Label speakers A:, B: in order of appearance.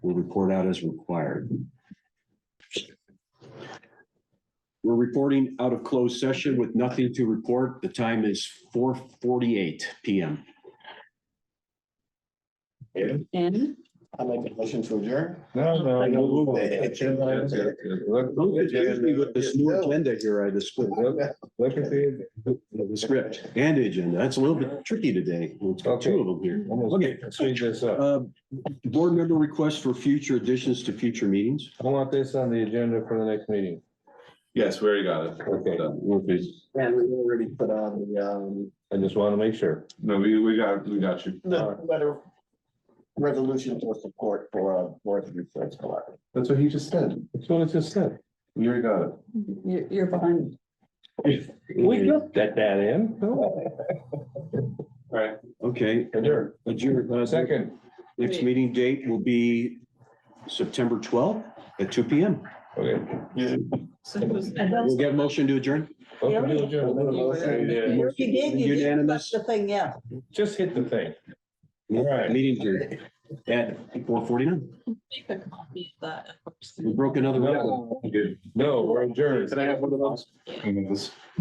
A: will report out as required. We're reporting out of closed session with nothing to report. The time is four forty-eight PM.
B: And
C: I make a motion to adjourn.
D: No, no, no.
C: Look
A: Don't confuse me with uh, this new agenda here, I just,
D: Look at the.
A: the script and agenda. That's a little bit tricky today. We've got two of them here.
D: Okay, speed this up.
A: Uh, Board member requests for future additions to future meetings.
D: I want this on the agenda for the next meeting.
E: Yes, we already got it.
D: Okay.
C: And we already put on the, um,
D: I just want to make sure.
E: No, we, we got, we got you.
C: the letter. uh, Resolution for support for, uh, board of research collaborative.
E: That's what he just said.
D: That's what it just said.
E: We already got it.
B: you're, you're behind.
D: We got that, that in. No.
E: Right.
A: Okay,
D: Adjourn.
A: adjourn, uh,
D: Second.
A: next meeting date will be September twelfth at two P M.
D: Okay.
B: So who's-
A: We'll get a motion to adjourn.
D: Open to adjourn.
B: You did, you did,
A: Unanimous?
B: that's the thing, yeah.
D: Just hit the thing. All right.
A: Meeting adjourned at four forty-nine.
F: Make a copy of that.
A: We broke another record.
D: No, No, we're adjourned.
E: Can I have one of those?